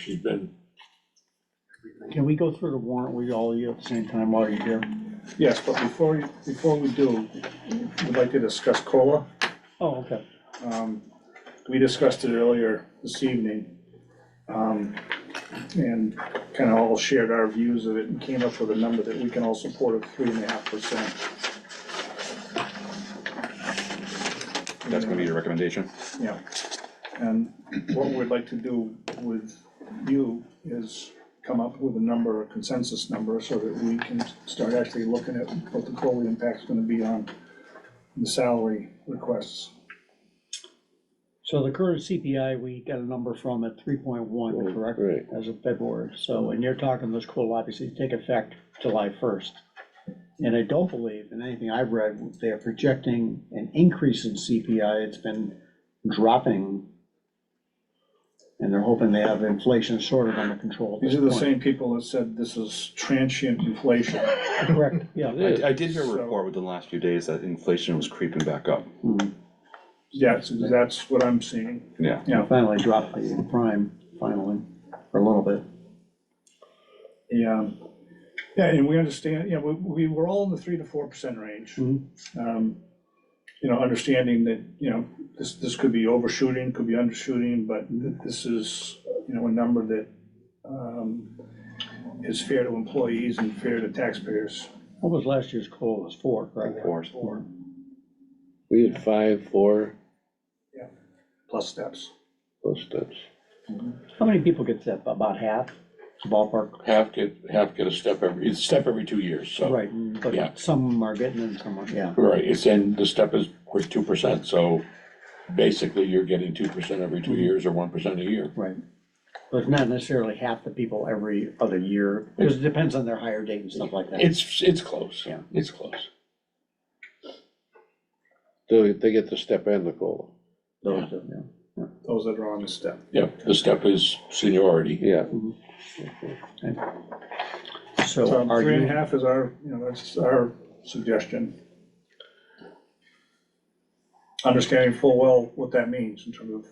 She's been, Can we go through the warrant with all of you at the same time while you're here? Yes, but before, you- before we do, we'd like to discuss COLA. Oh, okay. Um, We discussed it earlier this evening. um, And kind of all shared our views of it and came up with a number that we can all support of three and a half percent. That's gonna be your recommendation? Yeah, and what we'd like to do with you is come up with a number, a consensus number, so that we can start actually looking at what the COLA impact's gonna be on the salary requests. So the current CPI, we got a number from at three point one, correct? right. As of February, so, and you're talking those COLA obviously take effect July first. And I don't believe, in anything I've read, they are projecting an increase in CPI, it's been dropping. And they're hoping they have inflation sort of under control at These this are the point. same people that said this is transient inflation. Correct, yeah. I, I did hear a So- report within the last few days that inflation was creeping back up. Mhm. That's, that's what I'm seeing. Yeah. Yeah. Finally dropped the prime, finally, for a little bit. Yeah. Yeah, and we understand, yeah, we, we were all in the three to four percent range. Mhm. Um, You know, understanding that, you know, this, this could be overshooting, could be undershooting, but th- this is, you know, a number that um, is fair to employees and fair to taxpayers. What was last year's COLA, It was four, correct? Four. Four. we had five, four, Plus steps. those steps. How many people get that, about half, ballpark? Half get, half get a step every, it's a step every two years, so. Right, Oh. Yeah. but some are getting and some are, yeah. Right, it's in, the step is, was two percent, so basically you're getting two percent every two years or one percent a year. Right. But it's not necessarily half the people every other year, because it depends on their hire date and stuff like that. It's, it's close, Yeah. it's close. They, they get the step and the cola, Those, of them, Those that are on the step. Yep, the step is seniority. yeah. yeah. So So are three and a you, half is our, you know, that's our suggestion. Understanding full well what that means in terms of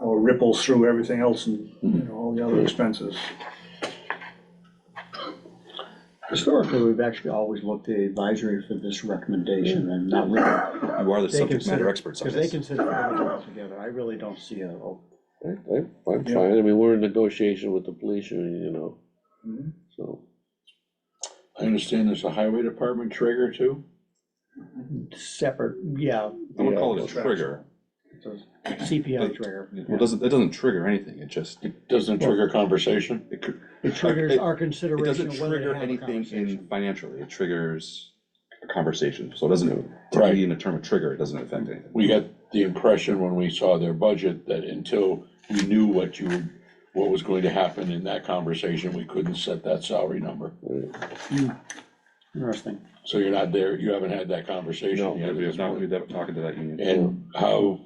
how it ripples through everything else and, you know, all the Mm-hmm. other expenses. historically, we've actually always looked to advisory for this recommendation and not really, You are the They subject consider- matter experts on because they this. consider everything altogether. I really don't see a, a I, I, I'm Yeah. fine, I mean, we're in negotiation with the police union, you know, Mhm. so, I understand there's a highway department trigger too? separate, yeah, I would call it a Yeah. trigger. it's a CPI trigger. Well, it doesn't, it doesn't trigger anything, it just, it It doesn't trigger conversation? cou- It triggers it- our it consideration doesn't of whether to trigger have a anything conversation. in financially, it triggers a conversation, so it doesn't, Right. typically in the term of trigger, it doesn't affect anything. we got the impression when we saw their budget that until we knew what you, what was going to happen in that conversation, we couldn't set that salary number. Interesting. So you're not there, you haven't had that conversation No, yet. Yeah, we have not, we've talking to that union. And how,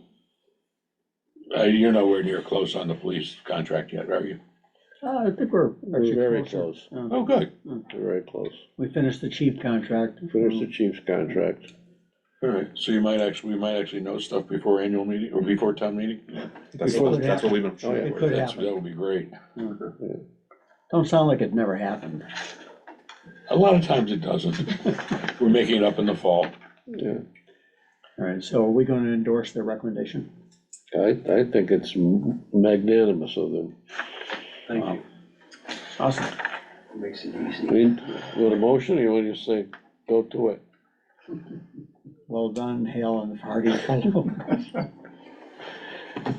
uh, you're nowhere near close on the police contract yet, are you? Uh, I think we're. we're very close, Uh, Oh, good, we're very close. We finished the chief contract. Mm. Finish the chief's contract, all right, so you might actually, we might actually know stuff before annual meeting, or before town meeting? That's, Before that- that's what we've been Oh, yeah. shooting It for. could That's, happen. that would be great. Don't sound like it never happened. A lot of times it doesn't. We're making it up in the fall. yeah, All right, so are we going to endorse their recommendation? I, I think it's magnanimous of them. Thank you. Awesome. I mean, with a motion, you want to say, go to it, Well done, Hale and Hardy.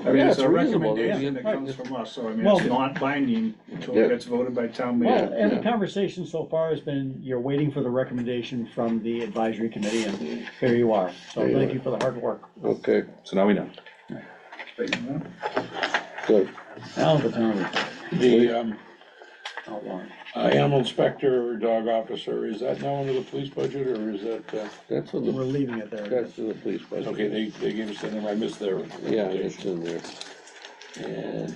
I mean, it's Yeah, a it's reasonable, yeah. recommendation that comes from us, so I mean, Well- it's not binding until Yeah. it gets voted by town Well, meeting. and the conversation so far has been, you're waiting for the recommendation from the advisory committee, and here you are. So There you thank are. you for the hard work. okay, So now we know. good, Now the town The, um, outlawed. Uh, Animal inspector or dog officer, is that now under the police budget, or is that, uh, that's in We're the, leaving it there. that's in the police budget. okay, they, they gave us that, number. I missed their Yeah, it's recommendation. in there,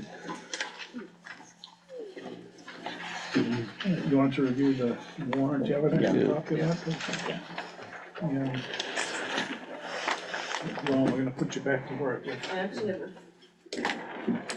And You want to review the warrant, do you have an Yeah. extra copy of that? Yeah. Well, we're gonna put you back to work. I actually have a